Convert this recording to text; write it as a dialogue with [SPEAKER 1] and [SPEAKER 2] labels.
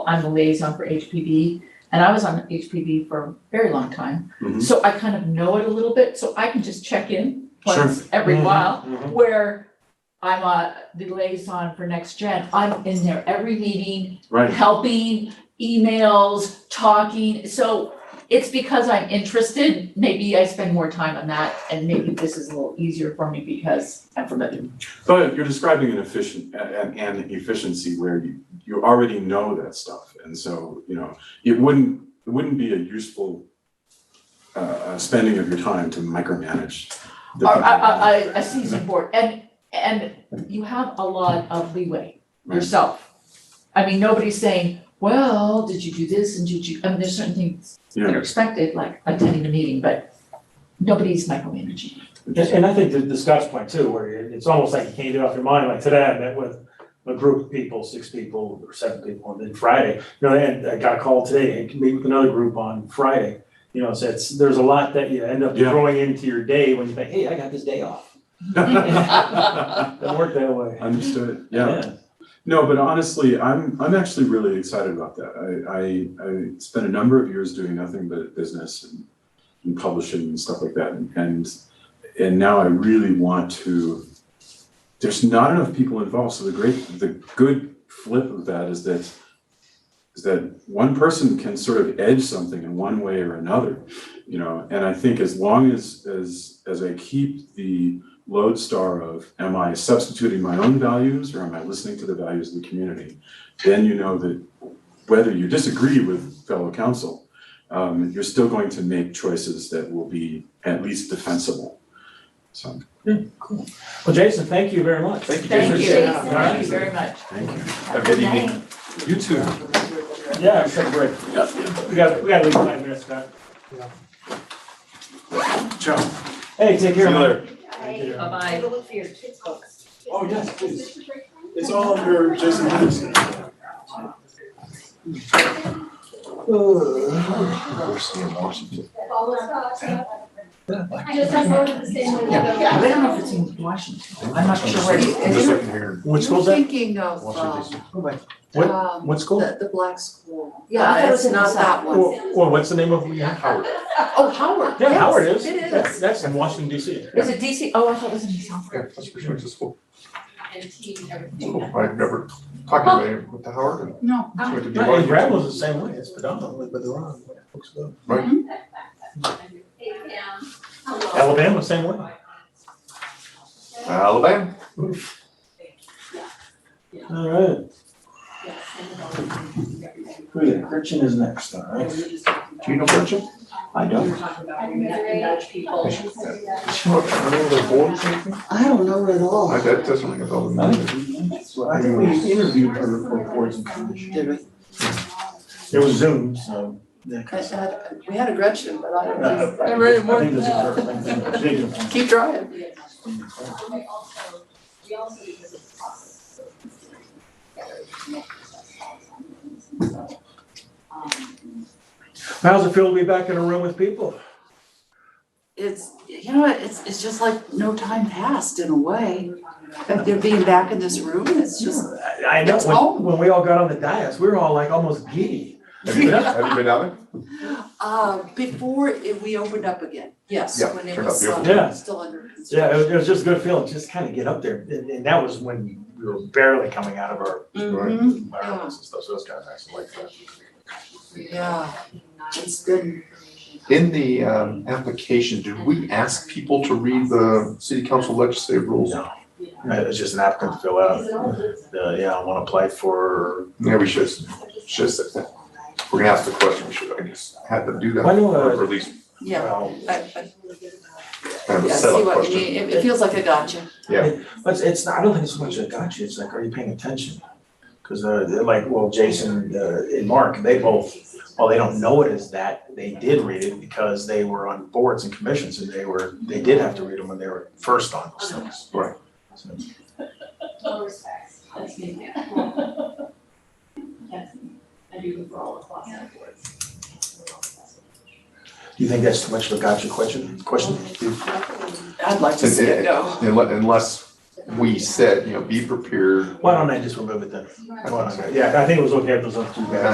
[SPEAKER 1] I'm the liaison for HPD, and I was on HPD for a very long time.
[SPEAKER 2] Mhm.
[SPEAKER 1] So I kind of know it a little bit, so I can just check in once every
[SPEAKER 3] Mhm.
[SPEAKER 1] while,
[SPEAKER 3] Mhm.
[SPEAKER 1] where I'm uh the liaison for next gen, I'm in there every meeting,
[SPEAKER 2] Right,
[SPEAKER 1] helping, emails, talking, so it's because I'm interested, maybe I spend more time on that, and maybe this is a little easier for me because I'm familiar.
[SPEAKER 2] but you're describing an efficient, an, an efficiency where you, you already know that stuff, and so, you know, it wouldn't, it wouldn't be a useful uh, uh, spending of your time to micromanage. the
[SPEAKER 1] Or
[SPEAKER 2] people.
[SPEAKER 1] a a a a seasoned board, and and you have a lot of leeway yourself. I mean, nobody's saying, well, did you do this and did you, I mean, there's certain things that
[SPEAKER 2] Yeah.
[SPEAKER 1] are expected, like attending a meeting, but nobody's micromanaging.
[SPEAKER 3] And, and I think to, to Scott's point too, where it- it's almost like you can't get off your mind, like today I met with a group of people, six people or seven people, and then Friday, you know, and I got a call today, and can meet with another group on Friday. You know, so it's, there's a lot that you end up
[SPEAKER 2] Yeah.
[SPEAKER 3] throwing into your day when you think, hey, I got this day off, doesn't work that way.
[SPEAKER 2] Understood, yeah. No, but honestly, I'm, I'm actually really excited about that. I, I, I spent a number of years doing nothing but business and, and publishing and stuff like that. And, and now I really want to, there's not enough people involved. So the great, the good flip of that is that, is that one person can sort of edge something in one way or another, you know? And I think as long as, as, as I keep the, lodestar of am I substituting my own values or am I listening to the values of the community? Then you know that whether you disagree with fellow council, um, you're still going to make choices that will be at least defensible. So,
[SPEAKER 3] Well, Jason, thank you very much.
[SPEAKER 2] Thank you,
[SPEAKER 1] Thank you,
[SPEAKER 3] Appreciate it.
[SPEAKER 1] Jason, thank you very much.
[SPEAKER 2] thank you.
[SPEAKER 1] Have
[SPEAKER 2] a good
[SPEAKER 1] night.
[SPEAKER 2] evening. You too.
[SPEAKER 3] Yeah, sure, great. We got, we got to leave in five minutes, Scott.
[SPEAKER 2] Ciao.
[SPEAKER 3] Hey, take care.
[SPEAKER 2] See you
[SPEAKER 3] man.
[SPEAKER 2] later.
[SPEAKER 3] Thank you.
[SPEAKER 1] Bye-bye.
[SPEAKER 4] Take a look for your kids' books.
[SPEAKER 2] Oh, yes, please. It's all under Jason Henderson.
[SPEAKER 5] Follow us up. I just have more of the same way.
[SPEAKER 1] Yeah, yeah, I don't know if it's in Washington, I'm not sure where it is.
[SPEAKER 3] What school's that?
[SPEAKER 6] Thinking of, um,
[SPEAKER 3] What-
[SPEAKER 6] um,
[SPEAKER 3] What school?
[SPEAKER 6] the, the black school.
[SPEAKER 1] Yeah, I thought it was
[SPEAKER 6] It's
[SPEAKER 1] in
[SPEAKER 6] not that one.
[SPEAKER 3] Well, well, what's the name of it? Howard.
[SPEAKER 6] Oh, Howard,
[SPEAKER 3] Yeah,
[SPEAKER 6] yes,
[SPEAKER 3] Howard is.
[SPEAKER 6] It is.
[SPEAKER 3] That's, that's in Washington DC.
[SPEAKER 1] Is it DC, oh, I thought it was in South Africa.
[SPEAKER 4] And tea and everything.
[SPEAKER 7] I've never talked to anybody with the Howard and.
[SPEAKER 1] No.
[SPEAKER 7] so it could be
[SPEAKER 3] Right,
[SPEAKER 7] one
[SPEAKER 3] and
[SPEAKER 7] of
[SPEAKER 3] Granville's the same way, it's predominantly. Alabama, same way.
[SPEAKER 7] you. Alabama.
[SPEAKER 3] All right. Who is it? Gretchen is next, all right?
[SPEAKER 7] Do you know Gretchen?
[SPEAKER 3] I don't.
[SPEAKER 7] Is she on the board or something?
[SPEAKER 6] I don't know at all.
[SPEAKER 7] I- That doesn't ring a bell. to me.
[SPEAKER 3] I think we interviewed her for boards and commissions.
[SPEAKER 6] Did we?
[SPEAKER 3] It was Zoom, so. yeah,
[SPEAKER 6] I,
[SPEAKER 3] 'cause-
[SPEAKER 6] I, we had a Gretchen, but I don't know.
[SPEAKER 3] I
[SPEAKER 6] really
[SPEAKER 3] think this is her. I think it's a big one.
[SPEAKER 6] Keep trying.
[SPEAKER 3] How's it feel to be back in a room with people?
[SPEAKER 6] It's, you know, it's, it's just like no time passed in a way. Like they're being back in this room, it's just,
[SPEAKER 3] I- I know,
[SPEAKER 6] It's
[SPEAKER 3] when,
[SPEAKER 6] home.
[SPEAKER 3] when we all got on the dais, we were all like almost giddy.
[SPEAKER 7] Have you been, have you been out there?
[SPEAKER 6] uh, before it, we opened up again, yes,
[SPEAKER 7] Yeah,
[SPEAKER 6] when it
[SPEAKER 7] turned out
[SPEAKER 6] was,
[SPEAKER 7] beautiful.
[SPEAKER 3] Yeah.
[SPEAKER 6] uh, still
[SPEAKER 3] Yeah,
[SPEAKER 6] under
[SPEAKER 3] it was,
[SPEAKER 6] construction.
[SPEAKER 3] it was just a good feeling, just kind of get up there. And, and that was when we were barely coming out of our
[SPEAKER 6] Mhm,
[SPEAKER 3] environments and stuff, so it was kind of nice, I like that.
[SPEAKER 6] yeah, it's been,
[SPEAKER 7] In the, um, application, did we ask people to read the city council legislative rules?
[SPEAKER 3] No. It was just an applicant to fill out, uh, yeah, I wanna apply for.
[SPEAKER 7] Yeah, we should, should, have said that. we're gonna ask the question, we should, I guess, have them do that,
[SPEAKER 3] I know, uh,
[SPEAKER 7] or at least
[SPEAKER 6] yeah,
[SPEAKER 3] Well,
[SPEAKER 6] I, I,
[SPEAKER 7] have a
[SPEAKER 6] yeah, I
[SPEAKER 7] setup
[SPEAKER 6] see what you
[SPEAKER 7] question.
[SPEAKER 6] mean, it, it feels like a gotcha.
[SPEAKER 3] But it's- it's, not- I don't think it's so much a gotcha, it's like, are you paying attention? Cause uh, they're like, well, Jason, uh, and Mark, they both, while they don't know it as that, they did read it because they were on boards and commissions and they were, they did have to read them when they were first on those things.
[SPEAKER 7] Right.
[SPEAKER 3] So, Do you think that's too much of a gotcha question, question?
[SPEAKER 6] I'd like to see it go.
[SPEAKER 7] Unless, unless we said, you know, be prepared.
[SPEAKER 3] Why don't I just remove it then?
[SPEAKER 7] I think so.
[SPEAKER 3] Yeah, I think it was okay if it was up to you guys.